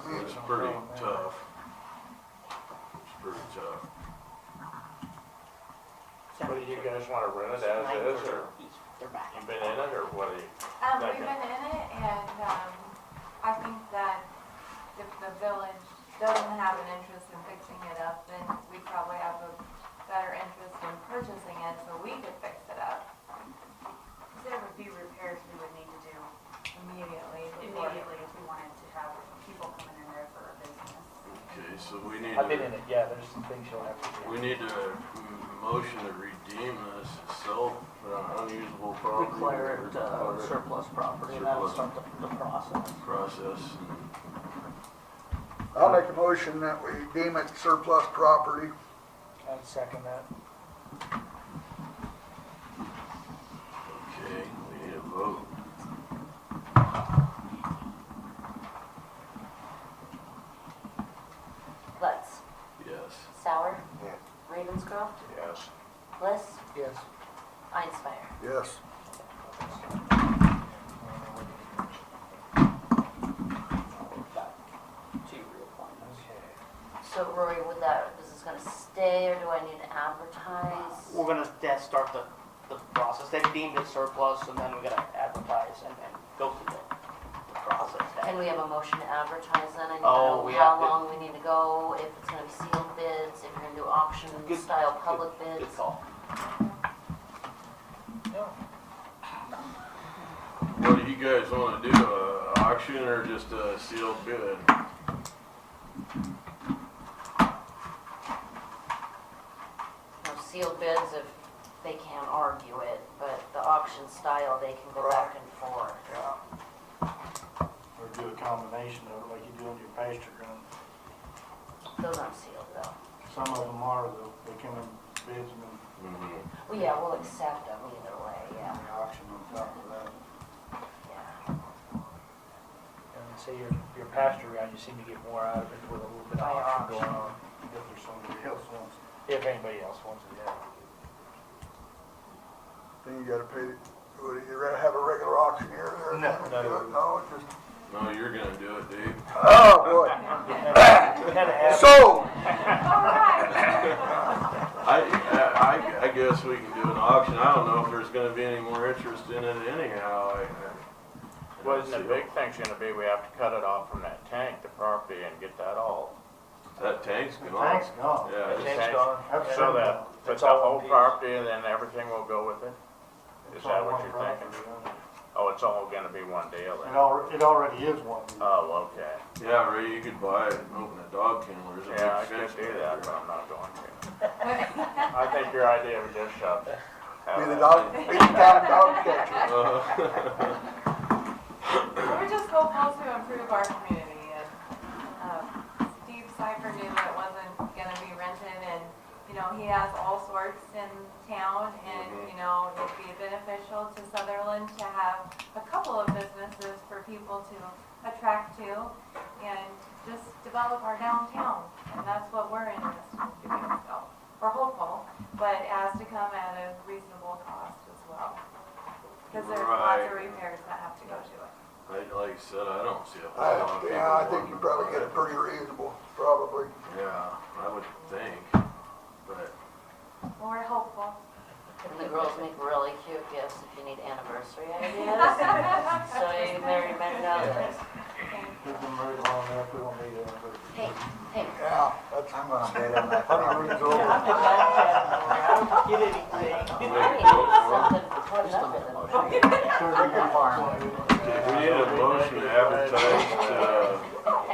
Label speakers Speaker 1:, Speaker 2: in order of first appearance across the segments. Speaker 1: pretty tough. It's pretty tough.
Speaker 2: What do you guys wanna rent it as is, or
Speaker 3: They're back.
Speaker 2: you been in it, or what do you?
Speaker 4: Um,
Speaker 2: Okay.
Speaker 4: we've been in it and, um, I think that if the village doesn't have an interest in fixing it up, then we probably have a better interest in purchasing it so we could fix it up.
Speaker 5: There would be repairs we would need to do
Speaker 4: Immediately. before-
Speaker 5: immediately if we wanted to have people coming in there for a business.
Speaker 1: Okay, so we need
Speaker 6: I've been
Speaker 1: to,
Speaker 6: in it, yeah, there's some things you'll have to do.
Speaker 1: we need to m- motion to redeem this itself, uh, unusable property.
Speaker 3: Declare it uh,
Speaker 1: Declare it
Speaker 3: surplus property, and that'll start the, the process.
Speaker 1: Process.
Speaker 7: I'll make a motion that we deem it surplus property.
Speaker 6: I'd second that.
Speaker 1: Okay, we need a vote.
Speaker 8: Lutz,
Speaker 1: Yes.
Speaker 8: Sauer,
Speaker 2: Yeah.
Speaker 8: Ravenscroft,
Speaker 2: Yes.
Speaker 8: Bliss,
Speaker 6: Yes.
Speaker 8: Einspire.
Speaker 7: Yes.
Speaker 3: Back to reappointments.
Speaker 8: So Rory, would that, is this gonna stay or do I need to advertise?
Speaker 3: We're gonna, yeah, start the, the process. They deemed it surplus and then we're gonna advertise and, and go through the, the process.
Speaker 8: And we have a motion to advertise then, I need to
Speaker 3: Oh,
Speaker 8: know
Speaker 3: we
Speaker 8: how
Speaker 3: have to-
Speaker 8: long we need to go, if it's gonna be sealed bids, if you're gonna do auction
Speaker 3: Good-
Speaker 8: style public
Speaker 3: Good
Speaker 8: bids.
Speaker 3: call.
Speaker 1: What do you guys wanna do, uh, auction or just a sealed bid?
Speaker 8: You know, sealed bids if they can't argue it, but the auction style, they can go back and forth.
Speaker 2: Or do a combination of it, like you do in your pasture ground.
Speaker 8: Those aren't sealed though.
Speaker 2: Some of them are, though, they come in bids and then
Speaker 1: Mhm.
Speaker 8: Well, yeah, we'll accept them either way, yeah,
Speaker 2: the auction on top of that.
Speaker 8: yeah.
Speaker 6: And say your, your pasture round, you seem to get more out of it with a little bit of
Speaker 8: By
Speaker 6: auction
Speaker 8: auction.
Speaker 6: going on.
Speaker 2: If there's somebody else wants. it.
Speaker 6: If anybody else wants it, yeah.
Speaker 7: Then you gotta pay, the- would you rather have a regular auctioneer there?
Speaker 2: No, no, no.
Speaker 7: No, it's just,
Speaker 1: No, you're gonna do it, Dave.
Speaker 7: oh,
Speaker 6: We had to
Speaker 7: boy.
Speaker 6: have-
Speaker 7: So,
Speaker 4: All right.
Speaker 1: I, I, I- I guess we can do an auction. I don't know if there's gonna be any more interest in it anyhow. I- I-
Speaker 2: Well, the big thing's gonna be, we have to cut it off from that tank, the property, and get that all.
Speaker 1: That tank's gone.
Speaker 2: Tank's gone.
Speaker 1: Yeah,
Speaker 6: The
Speaker 1: it's-
Speaker 6: tank's gone.
Speaker 2: So that, but
Speaker 6: It's
Speaker 2: the
Speaker 6: all one
Speaker 2: whole
Speaker 6: piece.
Speaker 2: property and then everything will go with it? Is that what you're thinking? Oh, it's all gonna be one deal then?
Speaker 9: It already, it already is one.
Speaker 2: Oh, okay.
Speaker 1: yeah, Ray, you could buy it and open a dog kennel. There's a
Speaker 2: Yeah, I
Speaker 1: big fence
Speaker 2: could do
Speaker 1: back
Speaker 2: that, but
Speaker 1: there.
Speaker 2: I'm not going to. I think your idea of a gift shop.
Speaker 7: be
Speaker 2: Uh,
Speaker 7: the dog, be the town dog catcher.
Speaker 1: Uh,
Speaker 4: We're just hopeful to improve our community and, um, Steve Cipher knew that it wasn't gonna be rented and, you know, he has all sorts in town and, you know, it'd be beneficial to Sutherland to have a couple of businesses for people to attract to and just develop our downtown. And that's what we're interested in doing, so we're hopeful, but it has to come at a reasonable cost as well. Cause there's lots
Speaker 1: Right.
Speaker 4: of repairs that have to go to it.
Speaker 1: I, like I said, I don't see a whole lot of
Speaker 7: I,
Speaker 1: people.
Speaker 7: Uh, yeah, I think
Speaker 1: wanting
Speaker 7: you
Speaker 1: to
Speaker 7: probably
Speaker 1: buy
Speaker 7: get it pretty reasonable, probably.
Speaker 1: Yeah, I would think, but
Speaker 4: Well, we're hopeful.
Speaker 8: And the girls make really cute gifts if you need anniversary ideas. So you Mary Magnolia,
Speaker 9: We've been married long enough, we don't need it, but.
Speaker 8: pink, pink.
Speaker 7: Yeah, that's, I'm gonna bet on that.
Speaker 9: Honeymoon's over.
Speaker 3: I don't get anything.
Speaker 1: we
Speaker 8: I need
Speaker 1: need
Speaker 8: something to put up with them.
Speaker 9: Turn the farm.
Speaker 1: a motion to advertise, uh,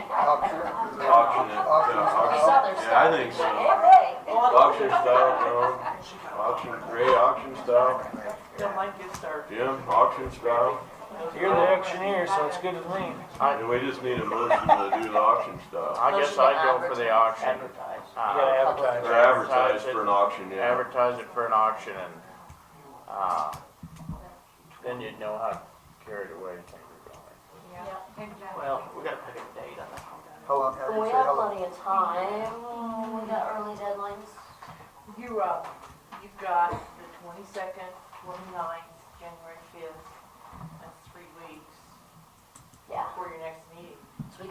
Speaker 7: Auction.
Speaker 1: auction it. uh,
Speaker 8: There's
Speaker 1: auction-
Speaker 8: other
Speaker 1: Yeah, I
Speaker 8: stuff.
Speaker 1: think so.
Speaker 8: Hey, hey.
Speaker 1: Auction style, no. Auction, great auction style.
Speaker 3: Don't mind good start.
Speaker 1: Jim, auction style.
Speaker 6: You're the auctioneer, so it's good with me.
Speaker 1: And we just need a motion to do the auction style.
Speaker 2: I guess I'd go for the auction.
Speaker 3: Advertise.
Speaker 6: You gotta
Speaker 2: Uh,
Speaker 6: advertise.
Speaker 1: Or advertise for an auction, yeah.
Speaker 2: Advertise it for an auction and, uh, then you'd know how carried away things are going.
Speaker 4: Yeah, exactly.
Speaker 3: Well, we gotta pick a date on that.
Speaker 7: How long, how do you
Speaker 8: We
Speaker 7: say
Speaker 8: have
Speaker 7: how long?
Speaker 8: plenty of time. We got early deadlines.
Speaker 10: You're up. uh, You've got the twenty-second, twenty-ninth, January fifth, that's three weeks
Speaker 8: Yeah.
Speaker 10: for your next meeting.